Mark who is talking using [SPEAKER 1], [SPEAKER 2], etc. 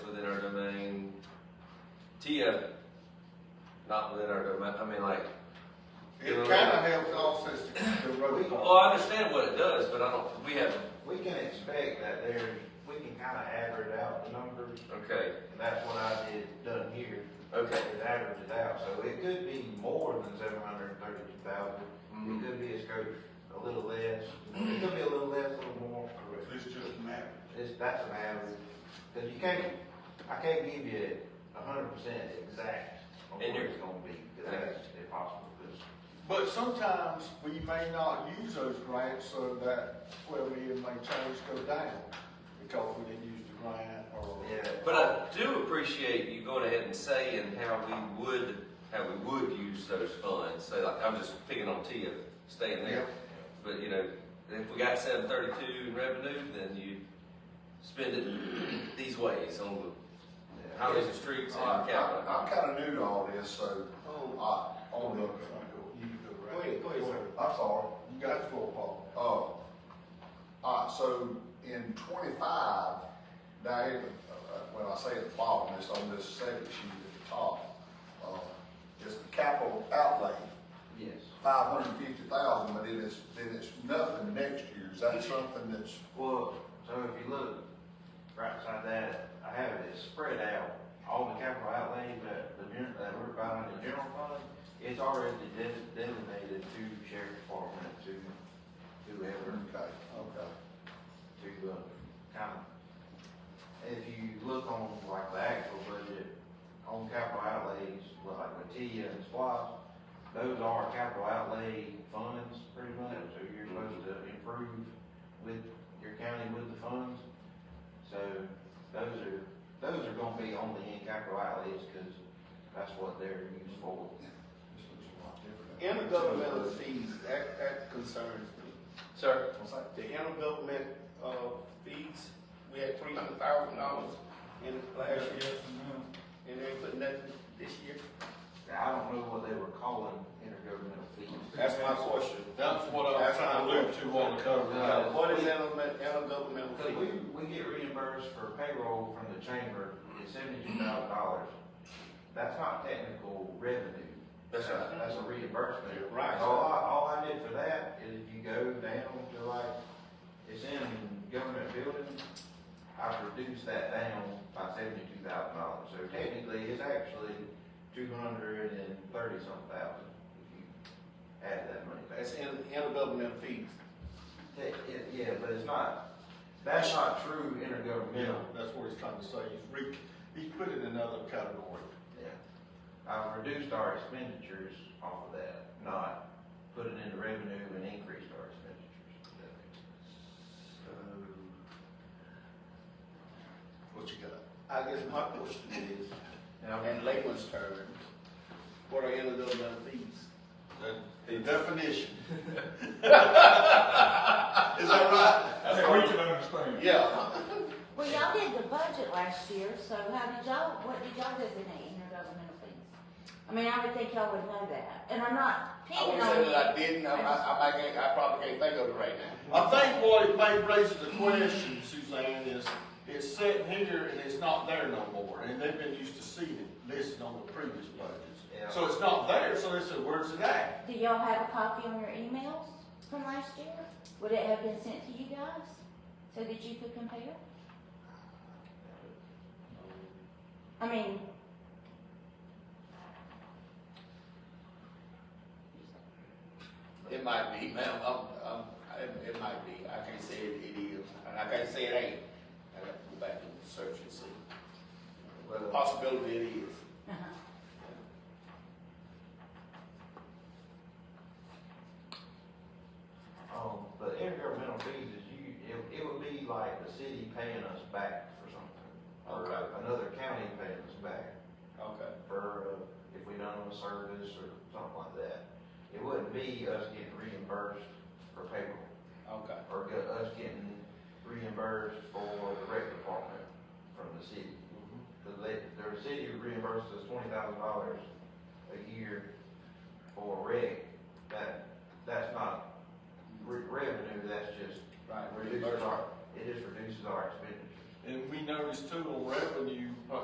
[SPEAKER 1] Tia, not within our domain, I mean, like,
[SPEAKER 2] It kinda helps offset the- the road.
[SPEAKER 1] well, oh, I understand what it does, but I don't, we have,
[SPEAKER 3] We can expect that there, we can kind of average out the numbers,
[SPEAKER 1] okay,
[SPEAKER 3] and that's what I did, done here.
[SPEAKER 1] okay.
[SPEAKER 3] It averages out, so it could be more than seven hundred and thirty-two thousand. It
[SPEAKER 1] Mhm.
[SPEAKER 3] could be a scope a little less, it could be a little less, a little more.
[SPEAKER 2] It's just an average.
[SPEAKER 3] It's, that's an average, because you can't, I can't give you a hundred percent exact on what
[SPEAKER 1] And you're-
[SPEAKER 3] it's gonna be, because that's impossible, because
[SPEAKER 2] But sometimes we may not use those grants so that twelve million may change go down because we didn't use the grant or.
[SPEAKER 3] Yeah.
[SPEAKER 1] But I do appreciate you going ahead and saying how we would, how we would use those funds, so like, I'm just picking on Tia, staying there. But, you know, if we got seven thirty-two in revenue, then you spend it these ways on the
[SPEAKER 3] yeah.
[SPEAKER 1] highways and streets
[SPEAKER 4] All
[SPEAKER 1] and
[SPEAKER 4] right,
[SPEAKER 1] capital.
[SPEAKER 4] Oh, I- I'm kind of new to all this, so,
[SPEAKER 2] Oh,
[SPEAKER 4] I,
[SPEAKER 2] oh,
[SPEAKER 4] on
[SPEAKER 2] no,
[SPEAKER 4] the,
[SPEAKER 2] you go right.
[SPEAKER 3] Go ahead, go ahead, sir.
[SPEAKER 4] I'm sorry,
[SPEAKER 2] You got the floor, Paul.
[SPEAKER 4] uh, all right, so in twenty-five, now, it- uh, when I say at the bottom, it's on this second sheet at the top, uh, it's the capital outlay,
[SPEAKER 3] Yes.
[SPEAKER 4] five hundred and fifty thousand, but it is, then it's nothing next year, is that something that's,
[SPEAKER 3] Well, so if you look right beside that, I have it, it's spread out. All the capital outlay that the, gen- that we're buying in the general fund, it's already de- designated to sheriff department, to whoever,
[SPEAKER 4] okay, okay.
[SPEAKER 3] to, uh, kind of. If you look on like the actual budget, on capital outlays, like with Tia and SPOS, those are capital outlay funds pretty much, so you're supposed to improve with your county with the funds. So those are, those are gonna be only in capital outlays, cause that's what they're used for.
[SPEAKER 4] This looks a lot different.
[SPEAKER 5] Intergovernmental fees, that, that concerns me.
[SPEAKER 1] Sir,
[SPEAKER 4] What's that?
[SPEAKER 5] The intergovernment, uh, fees, we had three hundred thousand dollars in last year, and they put nothing this year.
[SPEAKER 3] I don't know what they were calling intergovernmental fees.
[SPEAKER 5] That's my question.
[SPEAKER 2] That's what
[SPEAKER 5] I was trying to allude
[SPEAKER 2] to on the cover.
[SPEAKER 3] Uh,
[SPEAKER 5] What is intergovernment, intergovernmental
[SPEAKER 3] Cause we,
[SPEAKER 5] fee?
[SPEAKER 3] we get reimbursed for payroll from the chamber, it's seventy-two thousand dollars. That's not technical revenue.
[SPEAKER 1] that's right.
[SPEAKER 3] That's a reimbursement.
[SPEAKER 5] Right.
[SPEAKER 3] All I, all I did for that is if you go down to like, it's in government building, I've reduced that down by seventy-two thousand dollars. So technically, it's actually two hundred and thirty some thousand if you add that money back.
[SPEAKER 5] That's in, intergovernmental fees.
[SPEAKER 3] Yeah, Yeah, but it's not, that's not true
[SPEAKER 2] Yeah,
[SPEAKER 3] intergovernmental.
[SPEAKER 2] that's what he's trying to say. He's re, he's put it in another category.
[SPEAKER 3] Yeah. I've reduced our expenditures off of that, not put it into revenue and increased our expenditures.
[SPEAKER 2] What you got?
[SPEAKER 5] I guess my question is,
[SPEAKER 3] And I'm-
[SPEAKER 5] in layman's terms, what are intergovernmental fees?
[SPEAKER 2] The definition. Is that right? That's what we can understand.
[SPEAKER 5] Yeah.
[SPEAKER 6] Well, y'all did the budget last year, so how did y'all, what did y'all designate intergovernmental fees? I mean, I would think y'all would know that, and I'm not
[SPEAKER 5] I
[SPEAKER 6] picking
[SPEAKER 5] wouldn't
[SPEAKER 6] on
[SPEAKER 5] say
[SPEAKER 6] you.
[SPEAKER 5] that I didn't, I, I, I can't, I probably can't think of it right now.
[SPEAKER 2] I think what it may raise the question, Suzanne, is it's sitting here and it's not there no more, and they've been used to seeing it listed on the previous
[SPEAKER 3] Yeah.
[SPEAKER 2] budgets. So it's not there, so they said, where's it at?
[SPEAKER 6] Do y'all have a copy on your emails from last year? Would it have been sent to you guys, so that you could compare? I mean.
[SPEAKER 5] It might be, ma'am, um, um, it, it might be, I can't say it, it is, and I can't say it ain't. I got to go back and search and see,
[SPEAKER 3] Well,
[SPEAKER 5] possibility it is.
[SPEAKER 3] Um, but intergovernmental fees is you, it, it would be like the city paying us back for something. Or
[SPEAKER 5] Okay.
[SPEAKER 3] another county paying us back
[SPEAKER 5] Okay.
[SPEAKER 3] for, uh, if we done a service or something like that. It wouldn't be us getting reimbursed for payroll,
[SPEAKER 5] Okay.
[SPEAKER 3] or get- us getting reimbursed for the rec department from the city.
[SPEAKER 2] Mm-hmm.
[SPEAKER 3] The, la- the city reimburses us twenty thousand dollars a year for rec, that, that's not re- revenue, that's just
[SPEAKER 5] Right.
[SPEAKER 3] Reduces our, it just reduces our expenditures.
[SPEAKER 2] And we noticed too on revenue, uh,